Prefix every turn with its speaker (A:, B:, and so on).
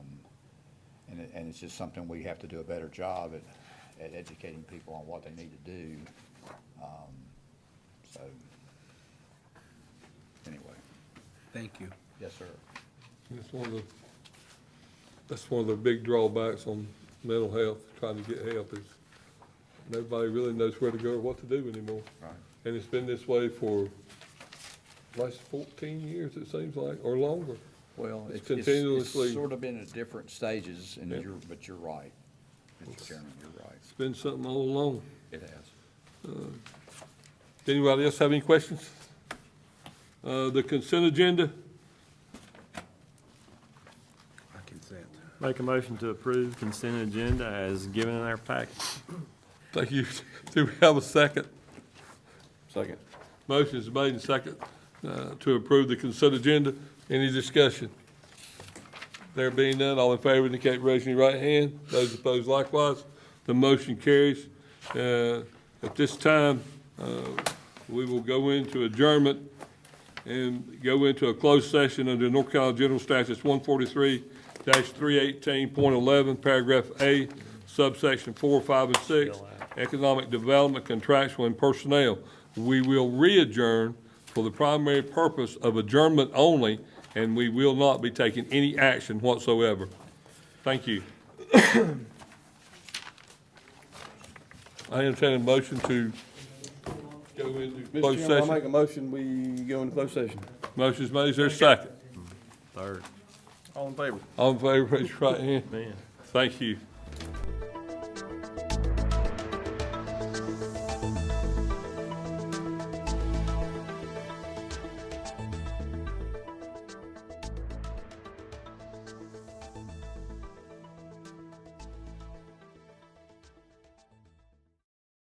A: and it's just something we have to do a better job at, at educating people on what they need to do. Um, So, anyway,
B: Thank you.
A: yes, sir.
C: That's one of the, that's one of the big drawbacks on mental health, trying to get help is nobody really knows where to go or what to do anymore.
A: Right.
C: And it's been this way for last fourteen years, it seems like, or longer.
A: Well,
C: It's
A: it's, it's-
C: continuously-
A: it's sort of been at different stages, and
C: Yeah.
A: you're, but you're right, Mr. Chairman, you're right.
C: It's been something all along.
A: It has.
C: Anybody else have any questions? Uh, the consent agenda,
B: I consent.
D: Make a motion to approve consent agenda as given in our packet.
C: thank you. Do we have a second?
B: Second.
C: Motion is made and second uh, to approve the consent agenda. Any discussion? There being none, all in favor indicate by raising your right hand. Those opposed likewise. The motion carries. Uh, At this time, uh, we will go into adjournment and go into a closed session under North Carolina General Statutes one forty-three three eighteen point eleven, paragraph A, subsection four, five, and six, economic development, contractual, and personnel. We will re-adjourn for the primary purpose of adjournment only, and we will not be taking any action whatsoever. Thank you. I entertain a motion to go into
E: Mr.
C: closed
E: Chairman, I
C: session.
E: make a motion, we go into closed session.
C: Motion's made, is there a second?
D: Third.
E: All in favor?
C: All in favor, raise your right hand.
D: Man.
C: Thank you.